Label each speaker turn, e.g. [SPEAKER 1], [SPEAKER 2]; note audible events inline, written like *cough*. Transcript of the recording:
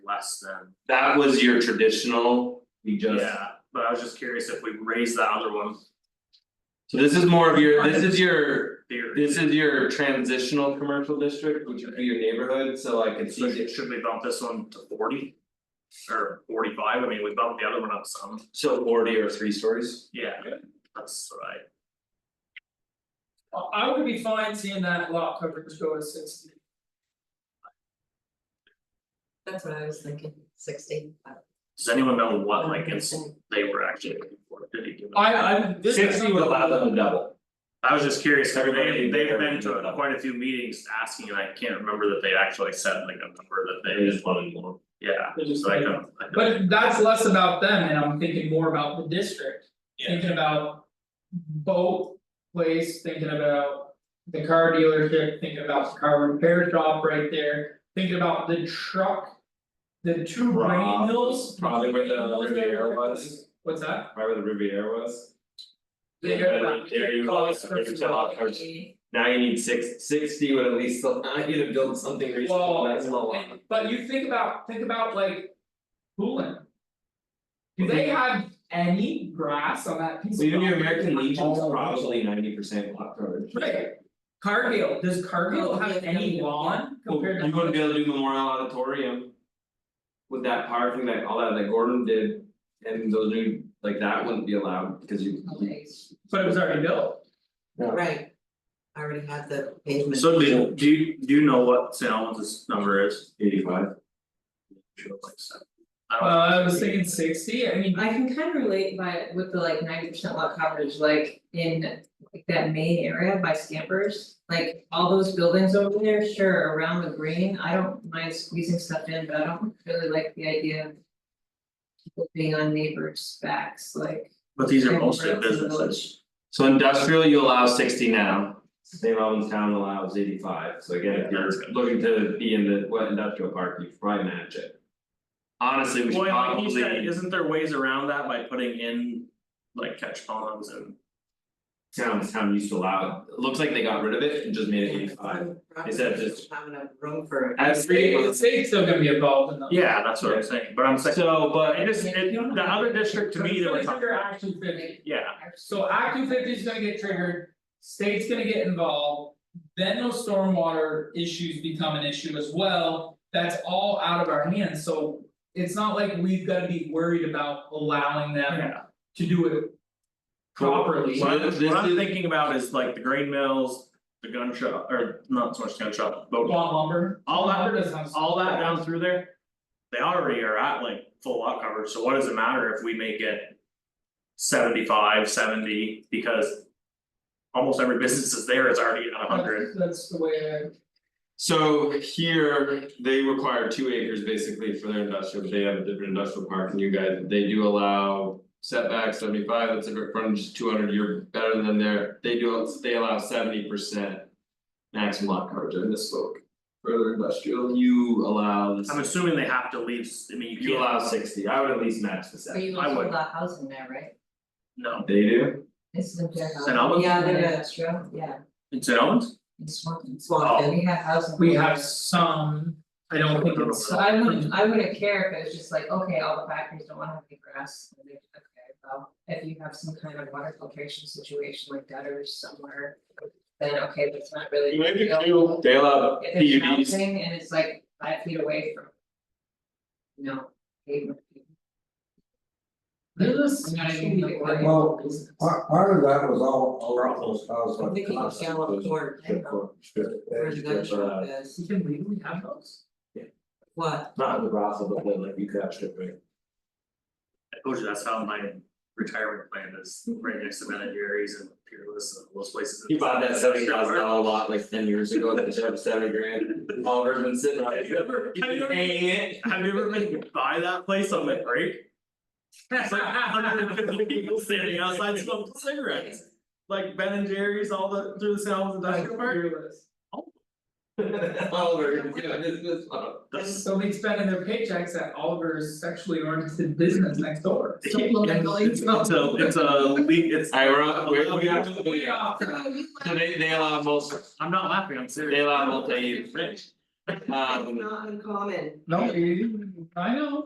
[SPEAKER 1] less than,
[SPEAKER 2] That was your traditional, we just,
[SPEAKER 1] yeah, but I was just curious if we raise the other one
[SPEAKER 2] so this is more of your, this is your,
[SPEAKER 1] theory.
[SPEAKER 2] this is your transitional commercial district, which would be your neighborhood, so like it's
[SPEAKER 1] So
[SPEAKER 2] easy.
[SPEAKER 1] should should we bump this one to forty? Or forty five, I mean, we bumped the other one up some,
[SPEAKER 2] So forty or three stories,
[SPEAKER 1] yeah, that's right,
[SPEAKER 3] I I would be fine seeing that lot coverage go to sixty.
[SPEAKER 4] That's what I was thinking, sixty.
[SPEAKER 1] does anyone know what like it's, they were actually looking for, did he give it?
[SPEAKER 3] I I this is.
[SPEAKER 2] sixty would allow them to double.
[SPEAKER 1] I was just curious, I mean, they they've
[SPEAKER 2] Everybody-
[SPEAKER 1] been
[SPEAKER 2] everybody took it
[SPEAKER 1] to
[SPEAKER 2] up.
[SPEAKER 1] quite a few meetings asking, and I can't remember that they actually said like a number that they just wanted more. Yeah,
[SPEAKER 3] They just-
[SPEAKER 1] so I don't, I don't.
[SPEAKER 3] But that's less about them and I'm thinking more about the district,
[SPEAKER 2] Yeah.
[SPEAKER 3] thinking about. Boat place, thinking about the car dealership, thinking about the car repair shop right there, thinking about the truck. The two grain
[SPEAKER 2] Rob-
[SPEAKER 3] mills.
[SPEAKER 2] probably where the Riviera was.
[SPEAKER 3] What's that?
[SPEAKER 2] Remember the Riviera was?
[SPEAKER 3] Yeah.
[SPEAKER 2] There you go, it's a lot of cars. now you need six, sixty would at least allow you to build something reasonable, that's a lot.
[SPEAKER 3] Well, but you think about, think about like. Cooling. Do they have any grass on that piece of?
[SPEAKER 2] Even your
[SPEAKER 3] property?
[SPEAKER 2] American Legion's
[SPEAKER 3] All of it.
[SPEAKER 2] probably ninety percent block coverage.
[SPEAKER 3] Right. Cargill, does Cargill have any lawn
[SPEAKER 1] Oh,
[SPEAKER 3] compared to?
[SPEAKER 2] You wouldn't be able to do Memorial Auditorium. With that power thing that all that that Gordon did, and those new, like that wouldn't be allowed, because you.
[SPEAKER 3] But it was already built.
[SPEAKER 4] Right. I already had the pavement.
[SPEAKER 1] So do do you do you know what St. Albans' number is?
[SPEAKER 2] Eighty five.
[SPEAKER 1] Sure, like so.
[SPEAKER 3] Uh,
[SPEAKER 1] I
[SPEAKER 3] I was thinking sixty, I mean,
[SPEAKER 5] I can kind of relate by with the like ninety percent lot coverage, like in like that main area by Scampers. Like all those buildings over there, sure, around the green, I don't mind squeezing stuff in, but I don't really like the idea of. People being on neighbors' backs, like.
[SPEAKER 1] but these are
[SPEAKER 5] everywhere
[SPEAKER 1] mostly
[SPEAKER 5] else in the
[SPEAKER 1] businesses,
[SPEAKER 5] village.
[SPEAKER 2] So industrial, you allow sixty now, St. Albans town allows eighty five, so again, if
[SPEAKER 1] Yeah,
[SPEAKER 2] you're
[SPEAKER 1] that's good.
[SPEAKER 2] looking to be in the what industrial park, you probably match it. Honestly, we should
[SPEAKER 1] Well, like
[SPEAKER 2] probably.
[SPEAKER 1] you said, isn't there ways around that by putting in like catch ponds and?
[SPEAKER 2] town town used to allow, it looks like they got rid of it and just made it eighty five. Is that just-
[SPEAKER 4] Have enough room for.
[SPEAKER 2] As
[SPEAKER 3] state,
[SPEAKER 2] three,
[SPEAKER 3] the state's still gonna be involved in that.
[SPEAKER 1] Yeah, that's what I'm saying, but I'm saying,
[SPEAKER 2] so,
[SPEAKER 1] but
[SPEAKER 2] but
[SPEAKER 1] it is, it, the other district to me that we're
[SPEAKER 3] It's gonna
[SPEAKER 1] talking
[SPEAKER 3] trigger
[SPEAKER 1] about,
[SPEAKER 3] Action fifty,
[SPEAKER 1] yeah,
[SPEAKER 3] so Act two fifty is gonna get triggered, state's gonna get involved. Then those stormwater issues become an issue as well, that's all out of our hands, so. It's not like we've gotta be worried about allowing them
[SPEAKER 1] yeah.
[SPEAKER 3] to do it. Properly.
[SPEAKER 1] What I'm-
[SPEAKER 2] This-
[SPEAKER 1] what I'm
[SPEAKER 2] this-
[SPEAKER 1] thinking about is like the grain mills, the gun shop, or not so much gun shop, but
[SPEAKER 3] Lawn lumber.
[SPEAKER 1] All that-
[SPEAKER 3] Lumber doesn't have-
[SPEAKER 1] all that down through there. They already are at like full lot coverage, so what does it matter if we make it? Seventy five, seventy, because. Almost every business is there is already at hundred,
[SPEAKER 3] That's- That's the way I.
[SPEAKER 2] so here, they require two acres basically for their industrial, but they have a different industrial park and you guys, they do allow. Setback seventy five, that's a great frontage, two hundred, you're better than their, they do, they allow seventy percent. Maximum lot coverage, I misspoke, for their industrial, you allow this,
[SPEAKER 1] I'm assuming they have to leave, I mean, you
[SPEAKER 2] you
[SPEAKER 1] can't,
[SPEAKER 2] allow sixty, I would at least match the
[SPEAKER 5] But
[SPEAKER 2] seventy.
[SPEAKER 5] you
[SPEAKER 1] I
[SPEAKER 5] also
[SPEAKER 1] would.
[SPEAKER 5] allow housing there, right?
[SPEAKER 1] no,
[SPEAKER 2] They do?
[SPEAKER 5] This is a fair house.
[SPEAKER 1] St. Albans,
[SPEAKER 4] Yeah, they're gonna-
[SPEAKER 5] That's true, yeah,
[SPEAKER 1] in St. Albans,
[SPEAKER 5] it's one,
[SPEAKER 4] Swamped
[SPEAKER 1] Oh.
[SPEAKER 2] Oh.
[SPEAKER 4] in.
[SPEAKER 5] we have housing.
[SPEAKER 3] We have some, I don't think it's.
[SPEAKER 5] So I wouldn't, I wouldn't care if it was just like, okay, all the factories don't wanna have any grass, and they, okay, well, if you have some kind of water filtration situation like gutters somewhere. Then, okay, but it's not really. available.
[SPEAKER 2] They allow
[SPEAKER 5] If it's
[SPEAKER 2] PUDs,
[SPEAKER 5] mounting and it's like five feet away from. You know, pavement.
[SPEAKER 3] This
[SPEAKER 5] You know what I mean, like,
[SPEAKER 3] Well,
[SPEAKER 5] local business.
[SPEAKER 6] Part, part of that was all, all those houses
[SPEAKER 4] I'm
[SPEAKER 6] like.
[SPEAKER 4] thinking of Gallup Court,
[SPEAKER 5] I don't know.
[SPEAKER 4] where the gun shop is,
[SPEAKER 3] You can legally have those?
[SPEAKER 4] what,
[SPEAKER 2] not in the brothel, but then like you could have strip right?
[SPEAKER 1] I told you that's how my retirement plan is, right next to Ben and Jerry's and Peerless and those places.
[SPEAKER 2] He bought that seventy thousand dollar lot like ten years ago, that should have seventy grand, Oliver's been sitting on
[SPEAKER 1] Have
[SPEAKER 2] it. *laughs*
[SPEAKER 1] you ever, have you ever-
[SPEAKER 3] *laughs*
[SPEAKER 2] Hey, eh.
[SPEAKER 1] have you ever been to buy that place on the break? It's like hundred and fifty people standing outside smoking cigarettes. Like Ben and Jerry's all the through the sounds of Dr. Park.
[SPEAKER 3] Fearless.
[SPEAKER 2] Oliver, you know, this this one.
[SPEAKER 1] That's-
[SPEAKER 3] Somebody's spending their paychecks at Oliver's sexually oriented business next door.
[SPEAKER 1] *laughs* It's a,
[SPEAKER 3] *laughs*
[SPEAKER 1] it's a leak, it's,
[SPEAKER 2] Alright, we're on, we're we have to. uh,
[SPEAKER 3] We are.
[SPEAKER 2] So they they allow both,
[SPEAKER 1] I'm not laughing, I'm serious.
[SPEAKER 2] they allow multi use. Um.
[SPEAKER 4] It's not uncommon.
[SPEAKER 3] No, you- I know.